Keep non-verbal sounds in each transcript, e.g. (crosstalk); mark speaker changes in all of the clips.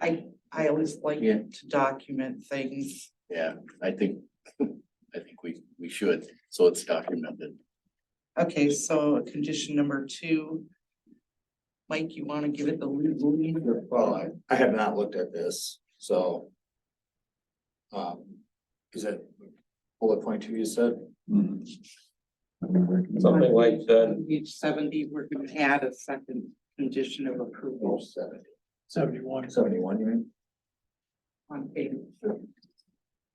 Speaker 1: I, I always like
Speaker 2: Yeah.
Speaker 1: to document things.
Speaker 2: Yeah, I think, (laughs) I think we, we should, so it's documented.
Speaker 1: Okay, so condition number two. Mike, you wanna give it the lead? lead?
Speaker 3: Well, I, I have not looked at this, so. Um, is that bullet point two you said?
Speaker 4: Something like that,
Speaker 1: On Page seventy, we're gonna add a second condition of approval
Speaker 3: seventy.
Speaker 5: Seventy-one.
Speaker 3: Seventy-one, you mean?
Speaker 1: on page.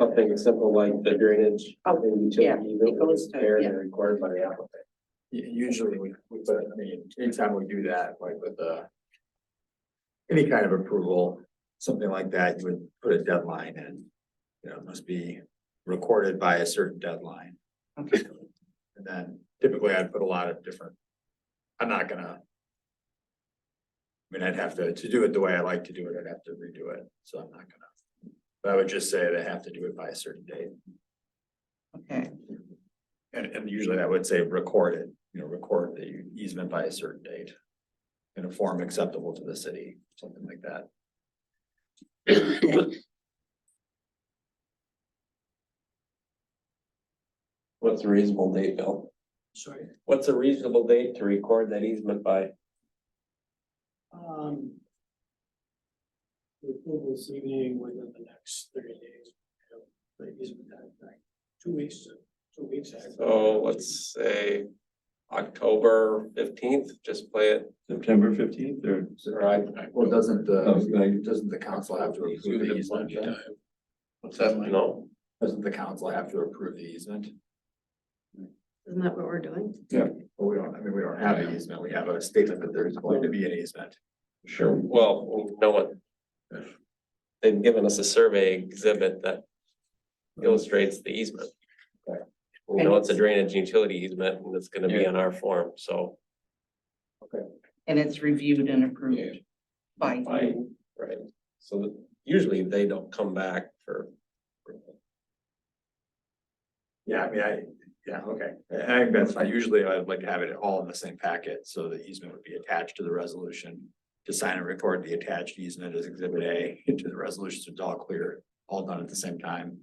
Speaker 4: something simple like the drainage.
Speaker 1: Oh,
Speaker 4: and
Speaker 1: yeah,
Speaker 4: utility
Speaker 1: it
Speaker 4: that was
Speaker 1: goes to-
Speaker 4: repaired and
Speaker 1: yeah.
Speaker 4: Required by the applicant.
Speaker 3: U- usually we, we, but I mean, anytime we do that, like with the. Any kind of approval, something like that, you would put a deadline in. You know, it must be recorded by a certain deadline.
Speaker 1: Okay,
Speaker 3: And then typically I'd put a lot of different. I'm not gonna. I mean, I'd have to, to do it the way I like to do it, I'd have to redo it, so I'm not gonna. But I would just say they have to do it by a certain date,
Speaker 1: okay,
Speaker 3: and, and usually I would say record it, you know, record the easement by a certain date. In a form acceptable to the city, something like that.
Speaker 4: What's a reasonable date, Bill?
Speaker 5: Sorry.
Speaker 4: What's a reasonable date to record that easement by?
Speaker 5: Um. The approval this evening within the next thirty days. you know, The easement time, like, two weeks, two weeks. I-
Speaker 4: So let's say October fifteenth, just play it.
Speaker 6: September fifteenth or?
Speaker 4: Right.
Speaker 3: Well, doesn't
Speaker 6: Oh,
Speaker 3: the,
Speaker 6: right.
Speaker 3: doesn't the council have to approve the easement? then?
Speaker 2: What's that like?
Speaker 4: No,
Speaker 3: Doesn't the council have to approve the easement?
Speaker 7: Isn't that what we're doing?
Speaker 3: Well, we don't, I mean, we don't have an easement, we have a statement that there's going to be an easement.
Speaker 4: sure, well, no one. They've given us a survey exhibit that illustrates the easement. We know it's a drainage utility easement and it's gonna be on our form, so.
Speaker 1: and it's reviewed and approved
Speaker 4: Yeah.
Speaker 1: by.
Speaker 4: By, right, so that- usually they don't come back for.
Speaker 3: Yeah, I mean, I, yeah, okay, I, I think that's fine, usually I'd like to have it all in the same packet, so the easement would be attached to the resolution. To sign and record the attached easement as exhibit A into the resolution, so it's all clear, all done at the same time.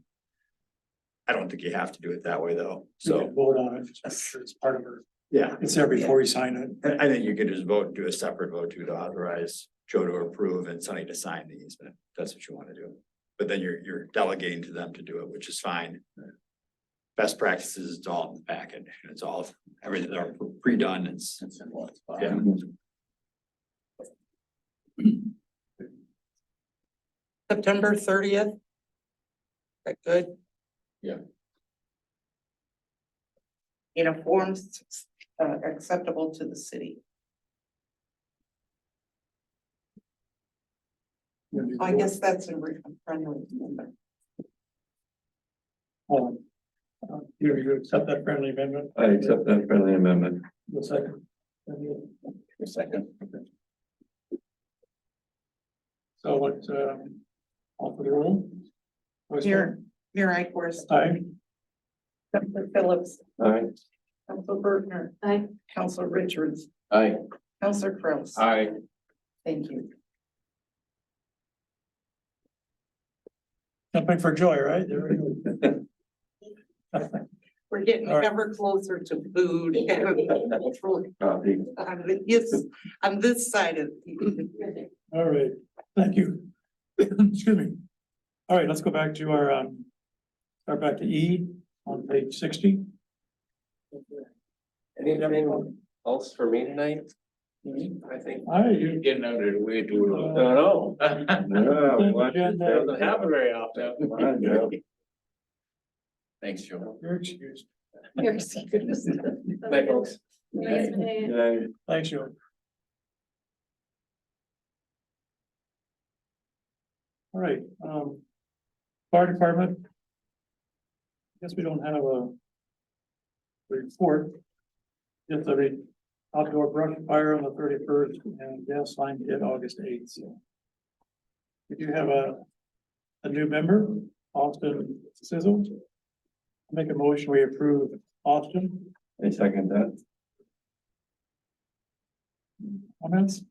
Speaker 3: I don't think you have to do it that way, though,
Speaker 5: We
Speaker 3: so,
Speaker 5: can Vote on it, just make sure it's part of her,
Speaker 3: yeah,
Speaker 5: it's there before you sign it.
Speaker 3: I, I think you could just vote, do a separate vote to authorize Joe to approve and Sunny to sign the easement, if that's what you wanna do. But then you're, you're delegating to them to do it, which is fine. Best practices, it's all in the packet, and it's all, everything are pre-done, it's, yeah,
Speaker 1: September thirtieth? That good?
Speaker 2: Yeah.
Speaker 1: In a form s- uh, acceptable to the city. I guess that's a re- I'm trying to remember.
Speaker 5: Um, uh, You, you accept that friendly amendment,
Speaker 6: I accept that friendly amendment.
Speaker 5: the second.
Speaker 2: Second.
Speaker 5: So what, um, off of the room?
Speaker 1: Here, here I course.
Speaker 5: Aye.
Speaker 1: Council Phillips,
Speaker 6: All right.
Speaker 1: Council Bergner,
Speaker 7: I,
Speaker 1: Council Richards,
Speaker 2: Aye.
Speaker 1: Council Kraus.
Speaker 2: Aye.
Speaker 1: Thank you.
Speaker 5: Something for Joy, right? There we go.
Speaker 1: We're getting
Speaker 5: All right.
Speaker 1: ever closer to food. (laughs) On
Speaker 6: Copy.
Speaker 1: this, on this side of.
Speaker 5: All right, thank you. (coughs) Excuse me. All right, let's go back to our, um, start back to E on page sixty.
Speaker 4: Anything else for me tonight? I think.
Speaker 5: All right, you.
Speaker 2: Getting out of the way
Speaker 5: uh,
Speaker 4: know.
Speaker 6: Yeah, what is
Speaker 5: agenda.
Speaker 6: that?
Speaker 4: happen very often.
Speaker 6: Come on, Joe.
Speaker 2: Thanks, Joe.
Speaker 5: You're excused.
Speaker 7: you're so good.
Speaker 4: Thank you.
Speaker 7: Nice meeting you.
Speaker 6: Did I-
Speaker 5: Thanks, Joe. All right, um, fire department. I Guess we don't have a report. Just a re- outdoor brush fire on the thirty-first and gas line hit August eighth, so. We do have a, a new member, Austin Sizzle. Make a motion, we approve Austin
Speaker 6: I second that.
Speaker 5: comments.